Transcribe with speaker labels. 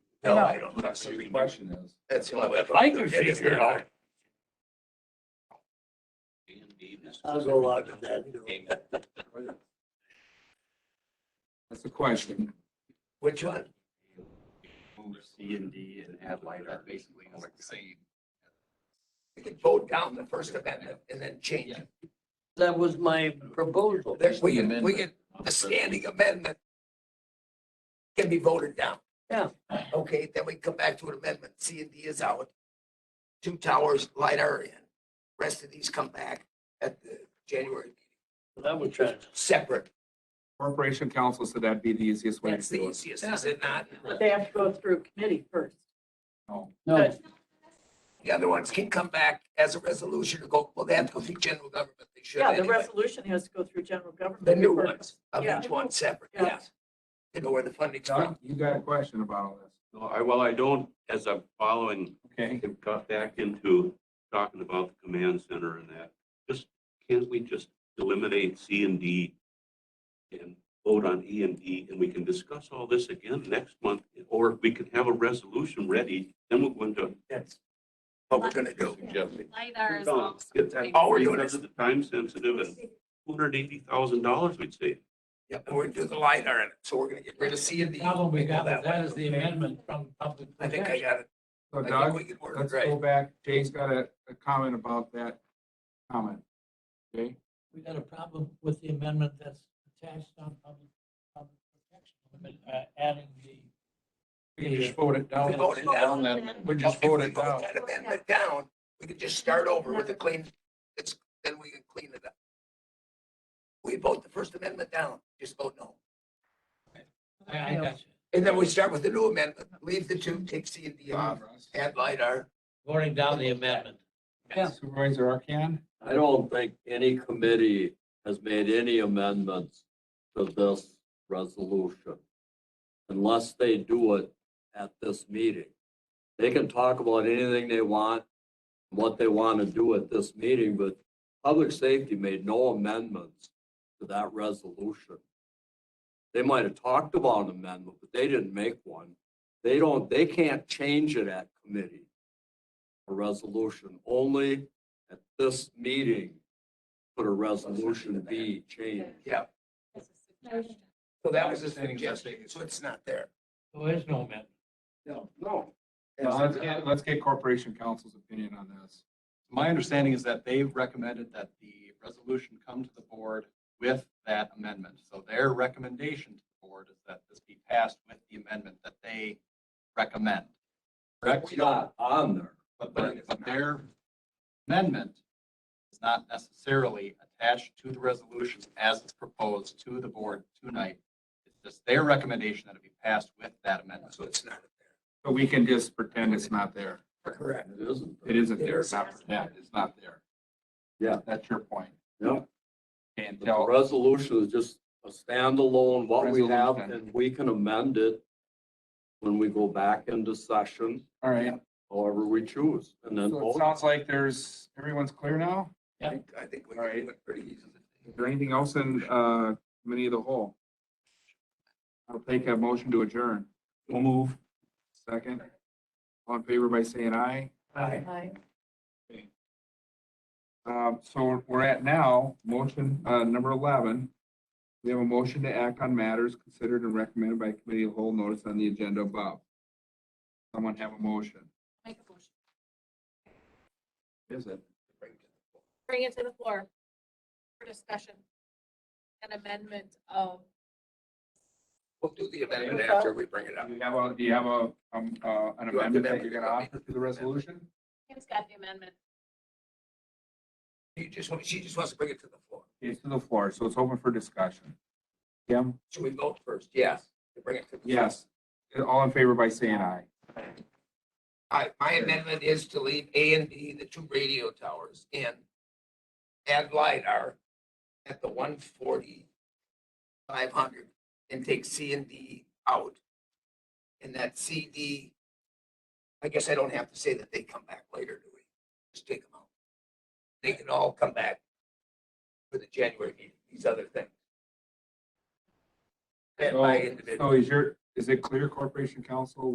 Speaker 1: No,
Speaker 2: No.
Speaker 1: I don't. think
Speaker 3: That's
Speaker 1: so.
Speaker 3: what the question is.
Speaker 1: That's the only way.
Speaker 2: I can figure it out.
Speaker 4: I'll go along with that. you know.
Speaker 3: That's the question.
Speaker 1: Which one?
Speaker 3: Move C and D and add light are basically like the same.
Speaker 1: We can vote down the First Amendment and then change it.
Speaker 4: That was my proposal.
Speaker 1: There's, we can, we can, the standing amendment can be voted down.
Speaker 4: Yeah.
Speaker 1: Okay, then we come back to an amendment. C and D is out. Two towers, LiDAR in. Rest of these come back at the January
Speaker 4: That was trying.
Speaker 1: separate.
Speaker 3: Corporation council, so that'd be the easiest way
Speaker 1: That's
Speaker 3: to
Speaker 1: the
Speaker 3: do it.
Speaker 1: easiest, is it not?
Speaker 5: But they have to go through committee first.
Speaker 3: No.
Speaker 5: No.
Speaker 1: The other ones can come back as a resolution to go, well, they have to go through general government. They should
Speaker 5: Yeah, the
Speaker 1: anyway.
Speaker 5: resolution has to go through general government.
Speaker 1: The new
Speaker 5: first.
Speaker 1: ones, of
Speaker 5: Yeah.
Speaker 1: each one separate,
Speaker 5: Yeah.
Speaker 1: yes. To know where the funding's from.
Speaker 3: Doc, you got a question about all this?
Speaker 6: No, I, well, I don't, as I'm following,
Speaker 3: Okay,
Speaker 6: I've got back into talking about the command center and that. Just, can't we just eliminate C and D and vote on E and D, and we can discuss all this again next month? Or we can have a resolution ready, then we'll go into.
Speaker 1: What we're gonna do.
Speaker 7: LiDAR is
Speaker 6: Done.
Speaker 7: also.
Speaker 6: Get that-
Speaker 1: All we're doing
Speaker 6: Because
Speaker 1: is-
Speaker 6: of the time sensitive and two hundred eighty thousand dollars we'd save.
Speaker 1: Yep, and we're gonna do the LiDAR in it, so we're gonna get rid of C and D.
Speaker 2: Problem we got with that is the
Speaker 1: Okay.
Speaker 2: amendment from public.
Speaker 1: I think I got it.
Speaker 3: so
Speaker 1: I think we
Speaker 3: Doug,
Speaker 1: can work
Speaker 3: let's
Speaker 1: it right.
Speaker 3: go back. Jay's got a, a comment about that comment. Okay,
Speaker 2: We got a problem with the amendment that's attached on public, public protection, amendment, uh, adding the.
Speaker 3: we can just vote it
Speaker 1: We
Speaker 3: down.
Speaker 1: voted down.
Speaker 3: We just
Speaker 1: If we
Speaker 3: voted
Speaker 1: vote
Speaker 3: down.
Speaker 1: That amendment down, we could just start over with a clean, it's, then we can clean it up. We vote the First Amendment down, just vote no.
Speaker 2: I, I got you.
Speaker 1: And then we start with the new amendment, leave the two, take C and D
Speaker 8: Uh-huh.
Speaker 1: off, add LiDAR.
Speaker 2: Voting down the amendment.
Speaker 3: Supervisor Arcan?
Speaker 9: I don't think any committee has made any amendments to this resolution. Unless they do it at this meeting. They can talk about anything they want, what they want to do at this meeting, but public safety made no amendments to that resolution. They might have talked about an amendment, but they didn't make one. They don't, they can't change it at committee. A resolution, only at this meeting could a resolution be changed.
Speaker 1: Yeah,
Speaker 7: It's a suggestion.
Speaker 1: so that was a suggestion, so it's not there.
Speaker 2: There is no amendment.
Speaker 8: No, no.
Speaker 3: Now, Let's get, let's get Corporation Council's opinion on this.
Speaker 8: My understanding is that they've recommended that the resolution come to the board with that amendment. So their recommendation to the board is that this be passed with the amendment that they recommend.
Speaker 9: Correct? Not on there.
Speaker 8: But, but but their amendment is not necessarily attached to the resolution as it's proposed to the board tonight. It's just their recommendation that it be passed with that amendment.
Speaker 1: So it's not
Speaker 3: But we can just pretend it's not there.
Speaker 1: correct.
Speaker 9: It isn't.
Speaker 3: It isn't there. It's not pretend. It's not there.
Speaker 9: Yeah.
Speaker 3: That's your point.
Speaker 9: Yep.
Speaker 3: And
Speaker 9: But The
Speaker 3: tell,
Speaker 9: resolution is just a standalone, what we have,
Speaker 3: Resolution.
Speaker 9: and we can amend it when we go back into session,
Speaker 3: all right.
Speaker 9: however we choose, and then
Speaker 3: So it
Speaker 9: vote.
Speaker 3: sounds like there's, everyone's clear now?
Speaker 1: I think, I think we
Speaker 3: All
Speaker 1: can
Speaker 3: right.
Speaker 1: do it pretty easily.
Speaker 3: Is there anything else in, uh, committee of the whole? I'll take a motion to adjourn.
Speaker 6: We'll move.
Speaker 3: Second. All in favor by saying aye.
Speaker 5: Aye.
Speaker 3: Um, so we're at now, motion, uh, number eleven. We have a motion to act on matters considered and recommended by committee of the whole notice on the agenda above. Someone have a motion?
Speaker 7: Make a motion.
Speaker 3: Is it?
Speaker 7: Bring it to the floor for discussion. An amendment of,
Speaker 1: We'll do the amendment after we bring it up.
Speaker 3: Do you have a, do you have a, um,
Speaker 1: You
Speaker 3: uh, an
Speaker 1: have to
Speaker 3: amendment that you're gonna
Speaker 1: amend it.
Speaker 3: offer to the resolution?
Speaker 7: Kim's got the amendment.
Speaker 1: You just, want- she just wants to bring it to the floor.
Speaker 3: It's to the floor, so it's open for discussion. Kim?
Speaker 1: Should we vote first? Yes. To bring it to the floor.
Speaker 3: Yes. All in favor by saying aye.
Speaker 1: All right, my amendment is to leave A and B, the two radio towers in. Add LiDAR at the one forty, five hundred, and take C and D out. And that C, D, I guess I don't have to say that they come back later, do we? Just take them out. They can all come back for the January meeting, these other things. And by
Speaker 3: So
Speaker 1: individual.
Speaker 3: so is your, is it clear, Corporation Council,